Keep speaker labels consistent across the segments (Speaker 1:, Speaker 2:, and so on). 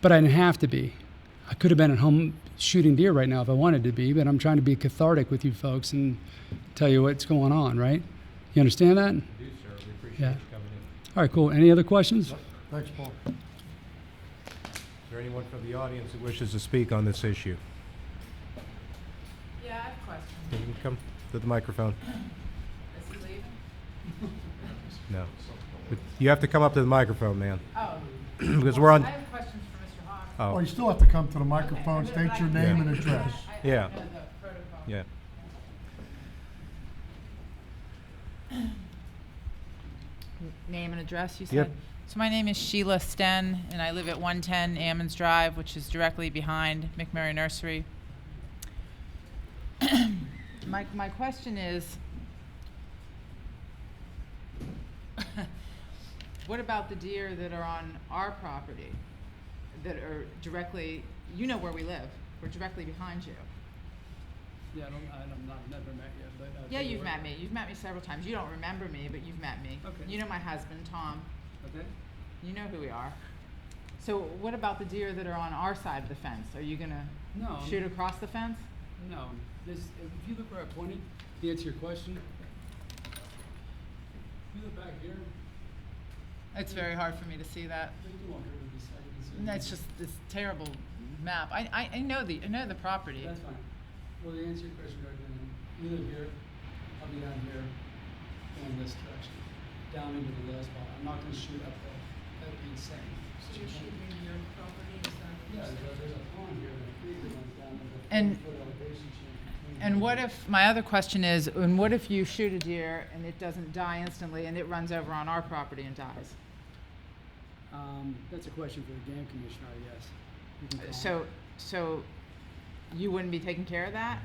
Speaker 1: but I didn't have to be. I could have been at home shooting deer right now if I wanted to be, but I'm trying to be cathartic with you folks and tell you what's going on, right? You understand that?
Speaker 2: do, sir. We appreciate
Speaker 1: Yeah.
Speaker 2: you coming in.
Speaker 1: All right, cool. Any other questions?
Speaker 2: Thanks, Paul. Is there anyone from the audience who wishes to speak on this issue?
Speaker 3: Yeah, I have a question.
Speaker 2: You can come to the microphone.
Speaker 3: Is he leaving?
Speaker 2: No. But you have to come up to the microphone, man,
Speaker 3: Oh.
Speaker 2: because we're on,
Speaker 3: I have questions for Mr. Hawks.
Speaker 2: oh,
Speaker 4: Well, you still have to come to the
Speaker 3: Okay,
Speaker 4: Uh, microphone,
Speaker 3: but
Speaker 4: state
Speaker 3: I-
Speaker 4: your
Speaker 3: I-
Speaker 4: name
Speaker 3: I-
Speaker 4: and address.
Speaker 3: I- I don't
Speaker 2: Yeah.
Speaker 3: know the protocol.
Speaker 2: yeah.
Speaker 3: Name and address, you
Speaker 2: Yep.
Speaker 3: said? So my name is Sheila Sten, and I live at 110 Ammons Drive, which is directly behind McMurray Nursery. My, my question is, what about the deer that are on our property, that are directly, you know where we live, we're directly behind you?
Speaker 1: Yeah, I don't, I'm not, never met yet, but. uh,
Speaker 3: Yeah, you've met me, you've met me several times, you don't remember me, but you've met me.
Speaker 1: Okay.
Speaker 3: You know my husband, Tom.
Speaker 1: Okay.
Speaker 3: You know who we are. So what about the deer that are on our side of the fence? Are you gonna
Speaker 1: No.
Speaker 3: shoot across the fence?
Speaker 1: No, this, if you look where I pointed, to answer your question, if you look back here,
Speaker 3: It's very hard for me to see that.
Speaker 1: there's two on here, we just- I can see it.
Speaker 3: That's just this terrible map. I, I, I know the I know the property.
Speaker 1: That's fine. Well, to answer your question, Greg, then, you live here, I'll be down here, going this direction, down into the low spot. I'm not gonna shoot up there. That'd be insane. So you can't- Yeah, there's a- there's a pond here, and a creek that runs down with a
Speaker 3: And-
Speaker 1: 40-foot elevation change.
Speaker 3: And what if my other question is, and what if you shoot a deer and it doesn't die instantly and it runs over on our property and dies?
Speaker 1: Um, that's a question for the game commissioner, I guess. You can call him.
Speaker 3: So so you wouldn't be taking care of that?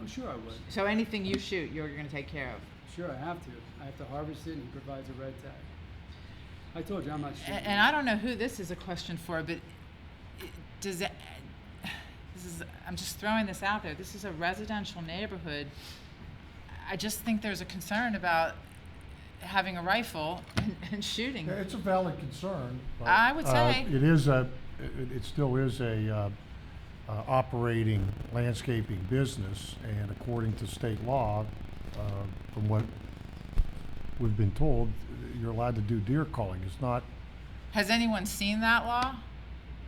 Speaker 1: I'm Oh, sure I would.
Speaker 3: So anything you shoot, you're gonna take care of.
Speaker 1: Sure, I have to. I have to harvest it, and he provides a red tag. I told you, I'm not
Speaker 3: A-
Speaker 1: shooting.
Speaker 3: And I don't know who this is a question for, but i- does it, this is, I'm just throwing this out there. This is a residential neighborhood. I just think there's a concern about having a rifle and, and shooting.
Speaker 4: Yeah, It's a valid concern. but,
Speaker 3: I would
Speaker 4: uh,
Speaker 3: say.
Speaker 4: It is a, it, it still is a, uh, uh, operating landscaping business, and according to state law, uh, from what we've been told, you're allowed to do deer calling. It's not,
Speaker 3: Has anyone seen that law?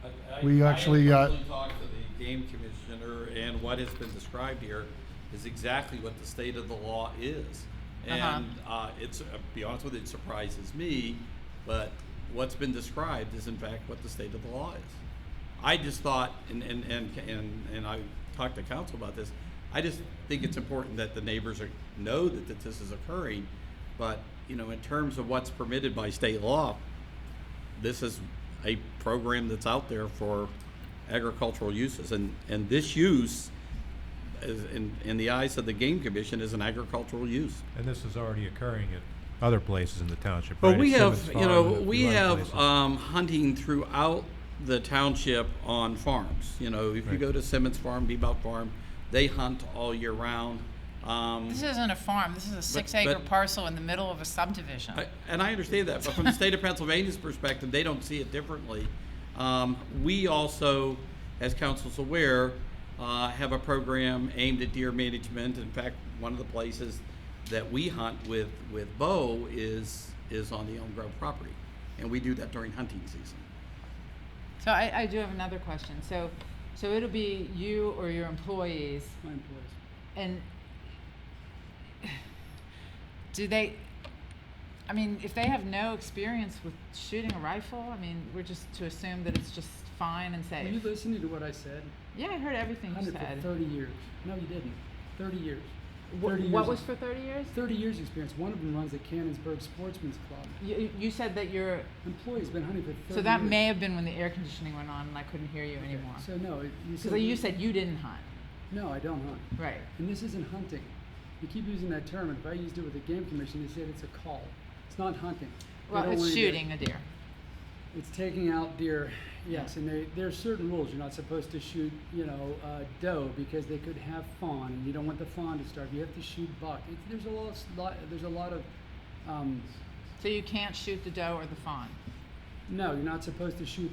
Speaker 5: I- I-
Speaker 4: We actually,
Speaker 5: I
Speaker 4: uh,
Speaker 5: have personally talked to the game commissioner, and what has been described here is exactly what the state of the law is.
Speaker 3: Uh-huh.
Speaker 5: And uh, it's, uh, be honest with you, it surprises me, but what's been described is in fact what the state of the law is. I just thought, and, and, and, and and I talked to council about this, I just think it's important that the neighbors are, know that, that this is occurring. But, you know, in terms of what's permitted by state law, this is a program that's out there for agricultural uses, and, and this use, is, in, in the eyes of the game commission, is an agricultural use.
Speaker 2: And this is already occurring at other places in the township, right?
Speaker 5: But we
Speaker 2: At
Speaker 5: have,
Speaker 2: Simmons
Speaker 5: you know,
Speaker 2: Farm and a
Speaker 5: we
Speaker 2: few other
Speaker 5: have
Speaker 2: places.
Speaker 5: um, hunting throughout the township on farms. You know, if you
Speaker 2: Right.
Speaker 5: go to Simmons Farm, Bebout Farm, they hunt all year round. Um,
Speaker 3: This isn't a farm. This is a six acre
Speaker 5: but-
Speaker 3: parcel in the middle of a subdivision.
Speaker 5: I- And I understand that, but from the state of Pennsylvania's perspective, they don't see it differently. Um, We also, as council's aware, uh, have a program aimed at deer management. In fact, one of the places that we hunt with, with bow is, is on the Elm Grove property. And we do that during hunting season.
Speaker 3: so I, I do have another question. So, so it'll be you or your employees
Speaker 1: My employees.
Speaker 3: And do they? I mean, if they have no experience with shooting a rifle, I mean, we're just to assume that it's just fine and
Speaker 1: Were you
Speaker 3: safe.
Speaker 1: listening to what I said?
Speaker 3: Yeah, I heard everything you
Speaker 1: Hundred for
Speaker 3: said.
Speaker 1: thirty years. No, you didn't. Thirty years.
Speaker 3: Wh-
Speaker 1: 30
Speaker 3: what
Speaker 1: years
Speaker 3: was
Speaker 1: of-
Speaker 3: for 30 years?
Speaker 1: Thirty years experience. One of them runs the Cannonsburg Sportsman's Club.
Speaker 3: You, you said that you're.
Speaker 1: Employee's been hunting for thirty years.
Speaker 3: So that may have been when the air conditioning went on and I couldn't hear you
Speaker 1: Okay,
Speaker 3: anymore.
Speaker 1: So no, it- you
Speaker 3: Because
Speaker 1: said.
Speaker 3: you said you didn't hunt.
Speaker 1: No, I don't hunt.
Speaker 3: Right.
Speaker 1: And this isn't hunting. You keep using that term, and if I used it with the game commission, they said it's a call. It's not hunting. They
Speaker 3: Well,
Speaker 1: don't
Speaker 3: it's
Speaker 1: wanna do it.
Speaker 3: shooting a deer.
Speaker 1: It's taking out deer, yes, and they, there are certain rules. You're not supposed to shoot, you know, uh, doe because they could have fawn, and you don't want the fawn to starve. You have to shoot buck. It's, there's a lot, of- lot, there's a lot of, um,
Speaker 3: So you can't shoot the doe or the fawn.
Speaker 1: no, you're not supposed to shoot